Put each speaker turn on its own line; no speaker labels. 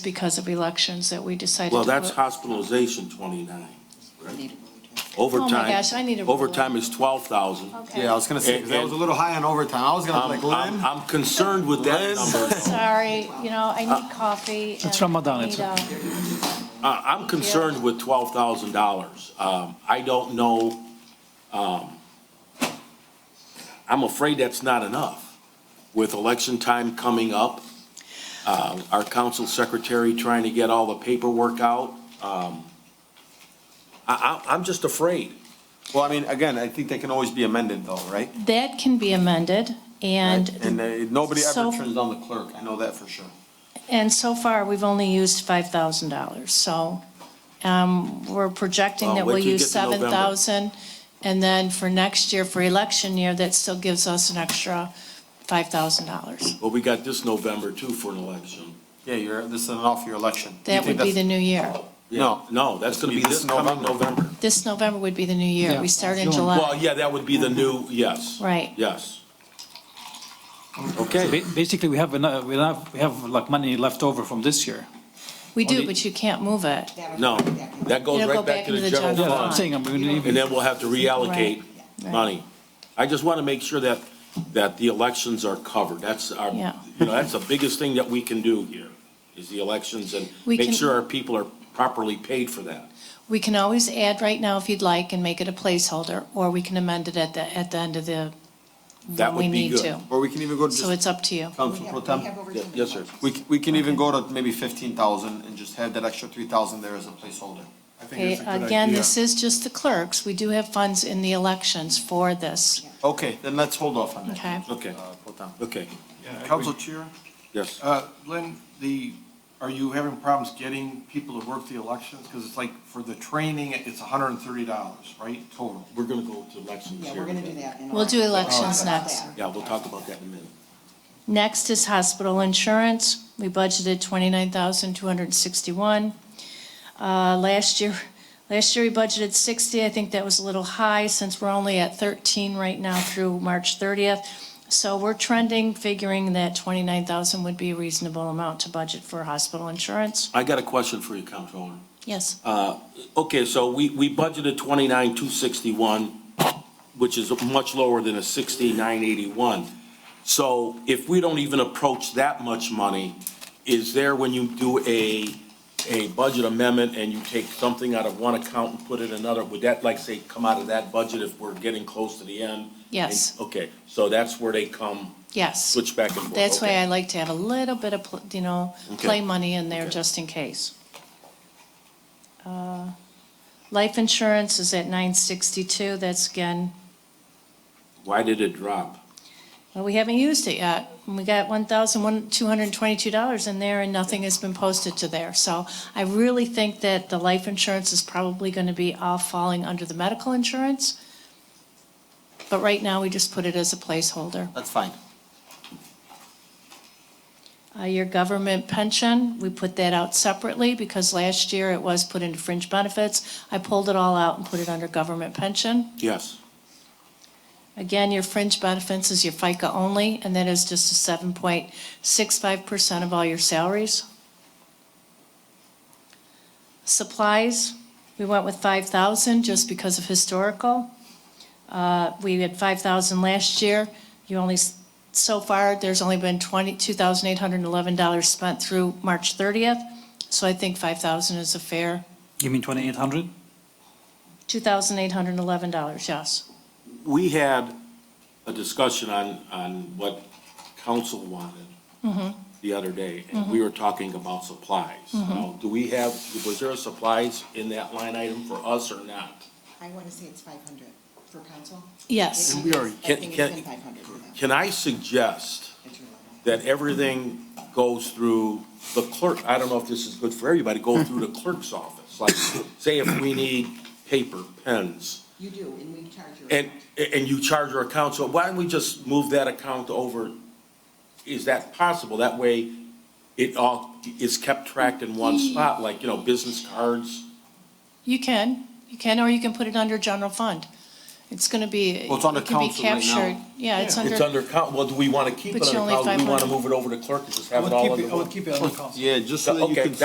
because of elections that we decided to.
Well, that's
put-
hospitalization twenty-nine.
Need
Overtime.
Oh gosh, I need a ruler.
Overtime is twelve thousand.
Okay.
Yeah, I was gonna say, 'cause that was a little high on overtime. I was gonna be like,
I'm, I'm,
Lynn?
I'm concerned with that
Lynn?
number.
Sorry, you know, I need coffee.
It's
and
Ramadan,
I
it's
need, uh,
Uh, I'm concerned with twelve thousand dollars. Um, I don't know, um, I'm afraid that's not enough. With election time coming up, uh, our council secretary trying to get all the paperwork out, um, I, I, I'm just afraid.
Well, I mean, again, I think they can always be amended though, right?
That can be amended,
And
and,
uh, nobody
So-
ever turns down the clerk. I know that for sure.
and so far, we've only used $5,000. So um, we're projecting
Well,
that
wait
we'll
till you
use
get to November.
7,000. And then for next year, for election year, that still gives us an extra $5,000.
Well, we got this November too for an election.
Yeah, you're, this is an off year election. You
That
think
would be the
that's-
new year.
No,
No, that's gonna be this coming November.
This November would be the new year.
Yeah.
We start in
June.
Well,
July.
yeah, that would be the new, yes.
Right.
Yes.
So ba- Basically, we have enough, we have, we have like money left over from this year.
We do,
only-
but you can't move it.
No, that goes
It'll go
right back to the general
Yeah, I'm
fine.
fund.
saying, I'm gonna
And
leave,
then we'll have to reallocate
Right, right.
money. I just want to make sure that, that the elections are covered. That's our, you
Yeah.
know, that's the biggest thing that we can do here, is the elections and
We
make
can-
sure our people are properly paid for that.
We can always add right now if you'd like and make it a placeholder, or we can amend it at the, at the end of the,
That
when we
would be
need
good.
to.
or we can even go to
So
just
it's up to you.
council pro temp.
Yeah, Yes, sir.
We, c- we can even go to maybe fifteen thousand and just have that extra three thousand there as a placeholder.
I think
Okay,
that's a good
again,
idea.
this is just the clerks. We do have funds in the elections for this,
Okay, then let's hold off on that.
okay?
Okay,
Uh, pro temp.
okay,
Yeah, I agree.
Council chair?
yes.
Uh, Lynn, the, are you having problems getting people to work the elections? Because it's like, for the training, it's hundred and thirty dollars, right, total?
We're going to go to elections
Yeah,
here.
we're gonna do that. in
We'll do
order.
elections
Talk about
next.
that.
Yeah, we'll talk about that in a minute.
Next is hospital insurance. We budgeted twenty-nine thousand, two hundred and sixty-one. Uh, last year, last year we budgeted sixty. I think that was a little high since we're only at thirteen right now through March thirtieth. So we're trending, figuring that twenty-nine thousand would be a reasonable amount to budget for hospital insurance.
I got a question for you, Comptroller.
Yes.
Okay, so we, we budgeted twenty-nine, two sixty-one, which is much lower than a sixty-nine, eighty-one. So if we don't even approach that much money, is there when you do a, a budget amendment and you take something out of one account and put it in another, would that like say come out of that budget if we're getting close to the end?
Yes.
Okay, so that's where they come,
Yes.
switch back and forth.
That's why
okay.
I like to have a little bit of, pl- you know,
Okay.
play money in there just in case. Uh, Life insurance is at nine sixty-two, that's again,
Why did it drop?
well, we haven't used it yet. And We got one thousand one, two hundred and twenty-two dollars in there and nothing has been posted to there. So I really think that the life insurance is probably gonna be all falling under the medical insurance. But right now, we just put it as a placeholder.
That's fine.
Uh, Your government pension, we put that out separately because last year it was put into fringe benefits. I pulled it all out and put it under government pension.
Yes.
Again, your fringe benefits is your FICA only, and that is just a 7.65% of all your salaries. Supplies, we went with 5,000 just because of historical. Uh, We had 5,000 last year. You only, s- so far, there's only been 20, $2,811 spent through March 30th, so I think 5,000 is a fair,
you mean twenty-eight hundred?
$2,811, yes.
we had a discussion on, on what council wanted the other day, and we were talking about supplies. Now, do we have, was there a supplies in that line item for us or not?
I wanna say it's five hundred for council.
Yes.
It is. I
Can-
think
can-
it's been five hundred for them.
Can I suggest
It's your level.
that everything goes through the clerk? I don't know if this is good for everybody, go through the clerk's office. Like, say if we need paper, pens,
You do, and we charge your.
and, and you charge your account, so why don't we just move that account over? Is that possible? That way, it all is kept tracked in one
Mm.
spot, like, you know, business cards.
You can, you can, or you can put it under general fund. It's going to be,
Well, it's under
it can be
council
captured.
right now.
Yeah, it's
It's
under,
under, coun- well, do we want to keep
But
it
you only
under council? Do we want to
500.
move it over to clerk and just
I
have it
would
all
keep
under
it, I
one?
would keep it under council.
Yeah, just so Uh, that you
Okay,
can